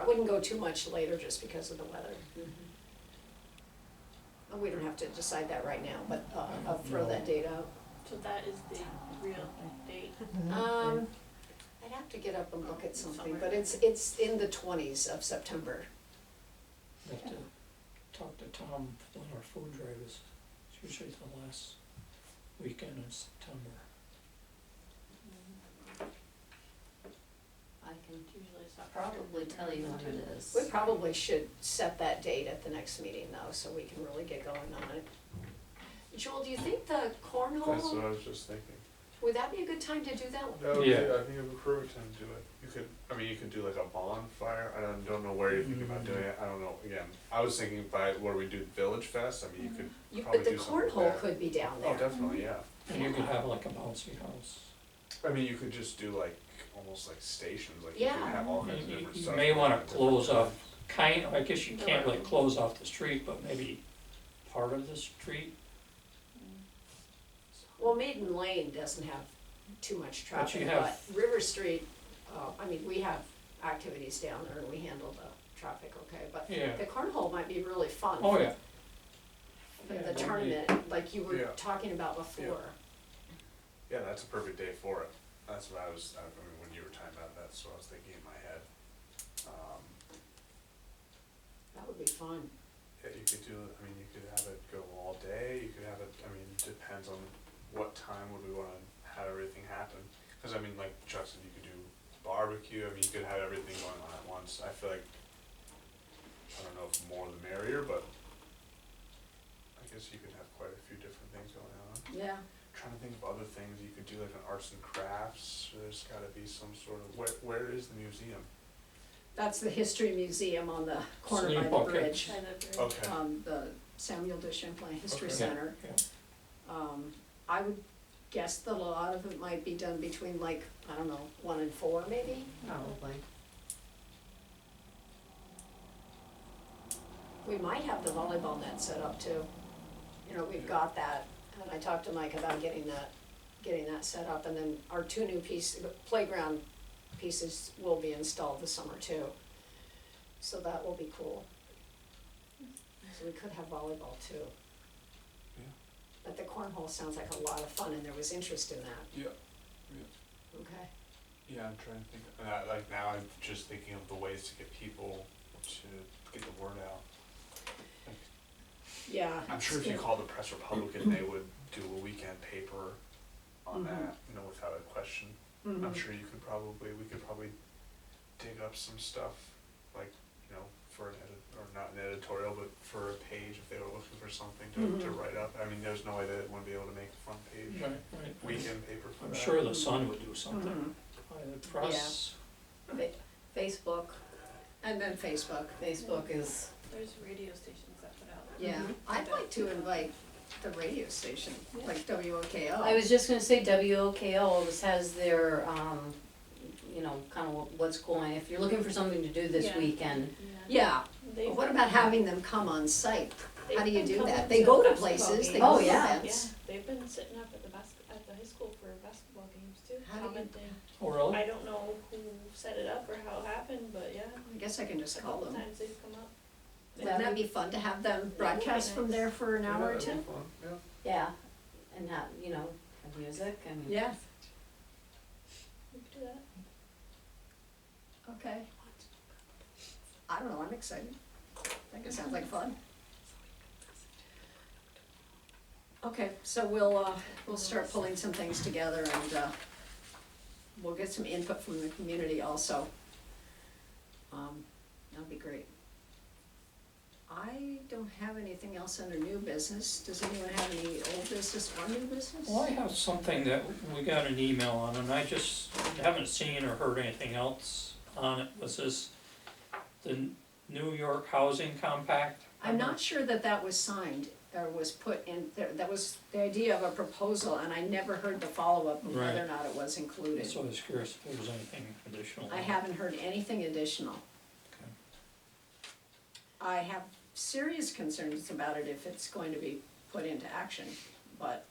I wouldn't go too much later just because of the weather. And we don't have to decide that right now, but uh, I'll throw that date out. So that is the real date. Um, I'd have to get up and look at something, but it's, it's in the twenties of September. Have to talk to Tom on our food drive is, it's usually the last weekend in September. I can Usually it's probably tell you what it is. We probably should set that date at the next meeting though, so we can really get going on it. Joel, do you think the That's cornhole, what I was just thinking. would that be a good time to do that? No, Yeah. I think it would be perfect time to do it. You could, I mean, you could do like a bonfire. I don't, don't know where you're thinking about doing it. I don't know. Again, I was thinking by where we do Village Fest. I mean, you could You- probably But the do something cornhole there. could be down Oh, there. definitely, Mm-hmm. yeah. And you could have like a bouncy house. I mean, you could just do like almost like stations. Like you Yeah. could have all kinds of You- different You stuff. may wanna different close things. off, kind, I guess you can't really close off the street, but maybe part of the street. Well, Maiden Lane doesn't have too much But you traffic, but have- River Street, uh, I mean, we have activities down there and we handle the traffic, okay? But Yeah. the cornhole might be really fun. Oh, yeah. for Yeah, the that'd be- tournament, like you were Yeah. talking about before. Yeah, that's a perfect day for it. That's what I was. I mean, when you were talking about that, that's what I was thinking in my head. Um, That would be fun. Yeah, you could do it, I mean, you could have it go all day, you could have it, I mean, depends on what time would we wanna have everything happen. Cause I mean, like Chuck said, you could do barbecue, I mean, you could have everything going on at once, I feel like, I don't know if more the merrier, but I guess you could have quite a few different things going on. Yeah. Trying to think of other things, you could do like an arts and crafts, there's gotta be some sort of, where, where is the museum? That's the history museum on the corner by Sneak the pocket. bridge, Okay, um, the Samuel de Champlain History Okay. Yeah, Center. yeah. Um, I would guess that a lot of it might be done between like, I don't know, one and four maybe? Probably. We might have the volleyball net set up too. You know, we've got that, and I talked to Mike about getting that, getting that set up, and then our two new piece, playground pieces will be installed this summer too. So that will be cool. So we could have volleyball too. Yeah. But the cornhole sounds like a lot of fun, and there was interest in that, yeah, okay? Yeah, I'm trying to think. Of, uh, like now, I'm just thinking of the ways to get people to get the word out. Yeah. I'm sure if you Yeah. called the Press Republican, they would do a weekend paper Mm-hmm. on that, you know, without a question. Mhm. I'm sure you could probably we could probably dig up some stuff, like you know, for an edit or not an editorial, but for a page if they were looking for something to, to Mhm. write up. I mean, there's no way that it wouldn't be able to make a front page Right, right. weekend paper for I'm that. sure the Sun would do something. Mhm. Probably the press. Fa- Facebook, and then Facebook. Facebook is, There's radio stations that put out. Mm-hmm. Yeah, I'd like to invite the radio station, like WOKO. I was just gonna say WOKO always has their, um, you know, kind of what's going, if you're looking for something to do this Yeah. weekend. Yeah, They- but what about having them come on site? they've How do you been do coming that? They go to basketball places, they games. go Oh, to yeah. Yeah, events. they've been sitting up at the bas- at the high school for basketball games too, How do you- commenting. Oh, really? I don't know who set it up or how it happened, but yeah, I guess I can a just call couple them. times they've come up. Wouldn't that be fun to have them broadcast from there for an Yeah, hour or that'd be two? fun, Yeah. Yeah, and have, you know, have music and. Yeah, We could do that. okay. I don't know, I'm excited. I think it sounds like fun. Okay, so we'll, uh, we'll start pulling some things together and, uh, we'll get some input from the community also. Um, that'd be great. I don't have anything else under new business. Does anyone have any old business or new business? Well, I have something that we got an email on, and I just haven't seen or heard anything else on it, was this the New York Housing Compact? I'm not sure that that was signed or was put in, there- that was the idea of a proposal, and I never heard the follow-up of whether or Right. not it was included. So I was curious if there was anything additional. I haven't heard anything additional. Okay. I have serious concerns about it if it's going to be put into action, but,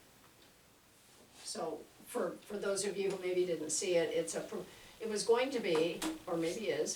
so, for, for those of you who maybe didn't see it, it's a, pro- it was going to be, or maybe is,